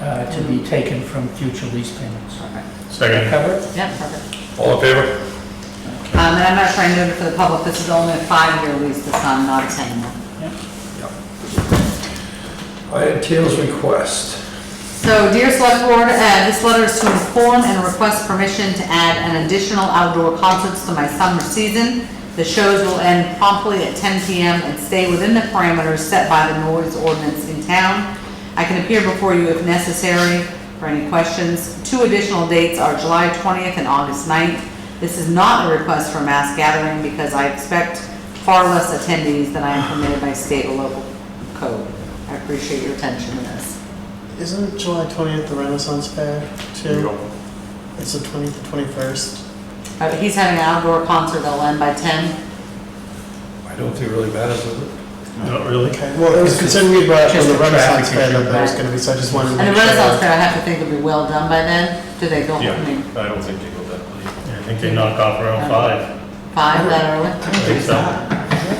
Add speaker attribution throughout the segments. Speaker 1: uh, to be taken from future lease payments.
Speaker 2: Perfect.
Speaker 3: Second.
Speaker 1: Covered?
Speaker 2: Yeah, perfect.
Speaker 3: All in favor?
Speaker 2: Um, and I'm not trying to note it for the public, this is only a five-year lease this time, not a ten-year.
Speaker 3: Item Taylor's request.
Speaker 2: So dear Select Board, uh, this letter is to inform and request permission to add an additional outdoor concerts to my summer season. The shows will end promptly at 10 PM and stay within the parameters set by the noise ordinance in town. I can appear before you if necessary for any questions. Two additional dates are July 20th and August 9th. This is not a request for mass gathering because I expect far less attendees than I am permitted by state or local code. I appreciate your attention to this.
Speaker 4: Isn't July 20th the Renaissance Fair too? It's the 20th, to 21st.
Speaker 2: Uh, he's having an outdoor concert that'll end by ten.
Speaker 3: I don't think it really matters, does it?
Speaker 5: Not really.
Speaker 4: Okay, well, it was concerned we brought up on
Speaker 1: Just
Speaker 4: the
Speaker 1: the
Speaker 4: Renaissance
Speaker 1: traffic
Speaker 4: Fair
Speaker 1: issue.
Speaker 4: that there was gonna be, so I just wanted to
Speaker 2: And the
Speaker 4: make sure.
Speaker 2: Renaissance Fair, I have to think will be well done by then. Do they go, I
Speaker 5: Yeah.
Speaker 2: mean,
Speaker 6: I don't think they go that late.
Speaker 5: I think they knock off around five.
Speaker 2: five that early?
Speaker 5: I think so.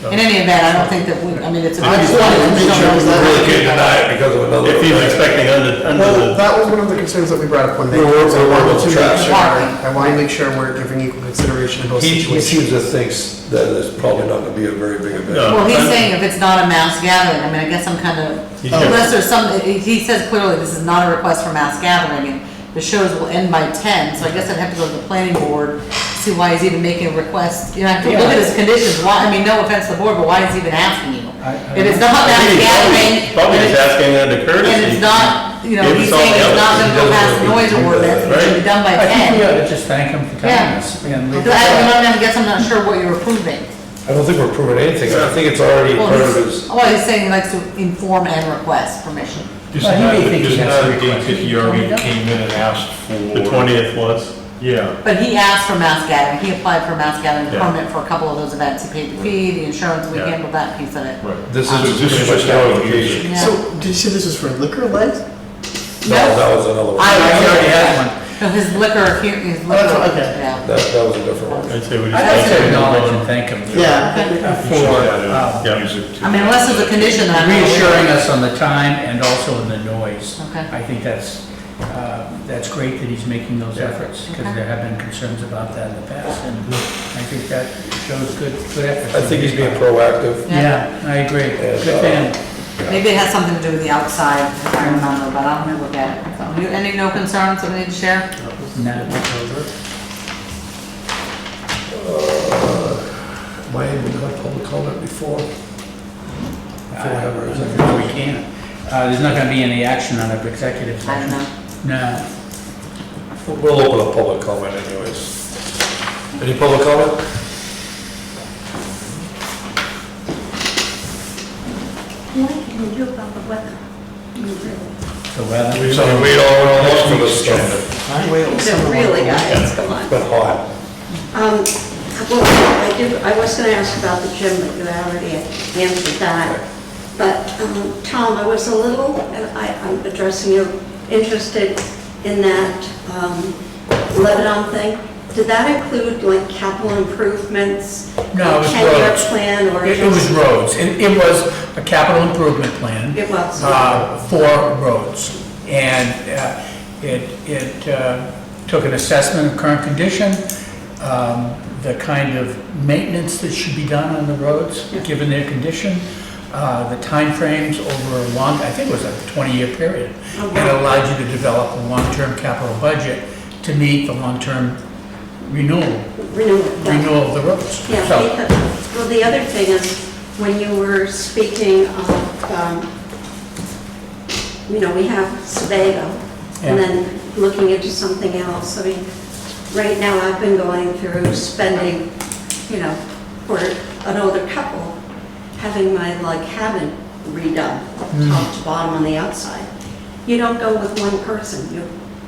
Speaker 2: In any event, I don't think that we, I mean, it's a.
Speaker 4: I just wanted to make sure it was
Speaker 3: We
Speaker 4: that-
Speaker 3: really can't deny it because uh, of another.
Speaker 5: If he's expecting under,
Speaker 4: Well,
Speaker 5: under the,
Speaker 4: that was one of the concerns that we brought up when they.
Speaker 3: We were- we were about the trash.
Speaker 4: I want to make sure we're giving equal consideration to both
Speaker 3: He he
Speaker 4: situations.
Speaker 3: seems to think that it's probably not gonna be a very big event.
Speaker 5: No.
Speaker 2: Well, he's saying if it's not a mass gathering, I mean, I guess I'm kind of,
Speaker 5: He's
Speaker 2: unless there's some, he- he says clearly this is not a request for mass gathering and the shows will end by ten, so I guess I'd have to go to the planning board, see why he's even making a request. You know, I have to look at his conditions, why, I mean, no offense to the board, but why is he even asking you?
Speaker 1: I- I-
Speaker 2: If it's not
Speaker 5: Uh, I
Speaker 2: mass
Speaker 5: think he's
Speaker 2: gathering.
Speaker 5: Probably
Speaker 2: then
Speaker 5: just
Speaker 2: it's-
Speaker 5: asking under courtesy.
Speaker 2: And it's not, you know,
Speaker 5: Give
Speaker 2: he's
Speaker 5: us all
Speaker 2: saying
Speaker 5: the
Speaker 2: it's
Speaker 5: others.
Speaker 2: not gonna go
Speaker 3: He doesn't
Speaker 2: past
Speaker 3: really
Speaker 2: noise
Speaker 3: do that,
Speaker 2: ordinance, it should be
Speaker 5: right?
Speaker 2: done by
Speaker 1: I think we ought
Speaker 2: ten.
Speaker 1: to just thank him for telling
Speaker 2: Yeah.
Speaker 1: us. and leave it
Speaker 2: But
Speaker 1: at
Speaker 2: I
Speaker 1: that.
Speaker 2: don't know, I guess I'm not sure what you're approving.
Speaker 3: I don't think we're proving anything. I think it's already
Speaker 2: Well,
Speaker 3: part of
Speaker 2: he's-
Speaker 3: his.
Speaker 2: Well, he's saying he likes to inform and request permission.
Speaker 6: This is
Speaker 1: Well, he
Speaker 6: not,
Speaker 1: may think
Speaker 6: this
Speaker 1: he
Speaker 6: is not
Speaker 1: has to
Speaker 6: a date that he already
Speaker 1: request it.
Speaker 6: came in and asked for.
Speaker 5: The twentieth was.
Speaker 6: Yeah.
Speaker 2: But he asked for mass gathering, he applied for mass gathering
Speaker 5: Yeah.
Speaker 2: permit for a couple of those events, he paid the fee, the insurance, we
Speaker 5: Yeah.
Speaker 2: handled that piece of it.
Speaker 6: Right.
Speaker 3: This
Speaker 6: So
Speaker 3: is
Speaker 6: this is
Speaker 3: pretty much
Speaker 6: just
Speaker 3: the
Speaker 6: how it
Speaker 3: application.
Speaker 2: Yeah.
Speaker 4: So, did you say this was for liquor license?
Speaker 3: No, that was another one.
Speaker 2: I-
Speaker 1: I already had one.
Speaker 2: No, His liquor, here- his
Speaker 4: that's
Speaker 2: liquor,
Speaker 4: what- okay.
Speaker 2: yeah.
Speaker 3: That, that was a different one.
Speaker 5: I'd say we just.
Speaker 1: I'd like to acknowledge and thank him. uh,
Speaker 4: Yeah.
Speaker 1: For um,
Speaker 5: Yeah.
Speaker 6: Use it to-
Speaker 2: I mean, unless there's a condition that I'm. not aware of.
Speaker 1: reassuring us on the time and also in the noise.
Speaker 2: Okay.
Speaker 1: I think that's, uh, that's great that he's making those efforts, because
Speaker 2: Okay.
Speaker 1: there have been concerns about that in the past, and I think that shows good, good effort.
Speaker 3: I think he's being proactive.
Speaker 1: Yeah, I agree. Good
Speaker 3: uh,
Speaker 1: man.
Speaker 2: Maybe it has something to do with the outside environmental, but I'll look at it. So, you- Any no concerns that we need to share?
Speaker 1: No.
Speaker 3: Why haven't we had public comment before?
Speaker 1: Uh, No, we can't. Uh, There's not going to be any action on it, executive
Speaker 2: I don't
Speaker 1: session.
Speaker 2: know.
Speaker 1: No.
Speaker 3: We'll open up public comment anyways. Any public comment?
Speaker 7: What can you do about the weather? You really-
Speaker 1: The weather.
Speaker 3: So we all went along for this stuff.
Speaker 7: So really, guys, come on.
Speaker 3: It's been hot.
Speaker 7: Um, Well, I do, I was going to ask about the gym, but you already answered that. But, um, Tom, I was a little, I- I'm addressing you, interested in that um, Lebanon thing. Did that include like capital improvements?
Speaker 1: No, it was
Speaker 7: Ten-year
Speaker 1: roads.
Speaker 7: plan or?
Speaker 1: It it was
Speaker 7: just-
Speaker 1: roads. It it was a capital improvement plan.
Speaker 7: It was.
Speaker 1: uh, For roads. And uh, it, it uh, took an assessment of current condition, um, the kind of maintenance that should be done on the roads,
Speaker 7: Yeah.
Speaker 1: given their condition, uh, the timeframes over a long, I think it was a 20-year period.
Speaker 7: Oh,
Speaker 1: It allowed you to develop a long-term capital budget to meet the long-term renewal,
Speaker 7: Renewal. yeah.
Speaker 1: renewal of the roads.
Speaker 7: Yeah,
Speaker 1: So-
Speaker 7: because, well, the other thing is, when you were speaking of, um, you know, we have Sebago,
Speaker 1: Yeah.
Speaker 7: and then looking into something else, I mean, right now, I've been going through spending, you know, for an older couple, having my, like, cabin redone,
Speaker 1: Hmm.
Speaker 7: top to bottom on the outside. You don't go with one person, you,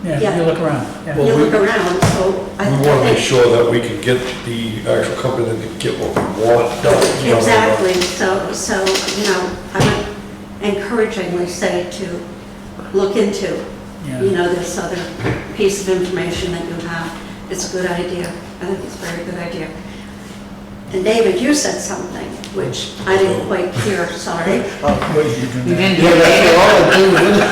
Speaker 1: Yeah, you
Speaker 7: yeah,
Speaker 1: look around. yeah.
Speaker 7: you
Speaker 3: Well, we-
Speaker 7: look around, so I
Speaker 3: We
Speaker 7: I
Speaker 3: want to make
Speaker 7: think-
Speaker 3: sure that we can get the actual company to get what we want done. you know,
Speaker 7: Exactly, so, so, you know, I would encouragingly say to look into, you
Speaker 1: Yeah.
Speaker 7: know, this other piece of information that you have. It's a good idea, I think it's a very good idea. And David, you said something, which I didn't quite hear, sorry.
Speaker 1: What did you do
Speaker 2: You
Speaker 1: now?
Speaker 2: didn't do
Speaker 4: Yeah,
Speaker 2: it.
Speaker 4: that's all I do.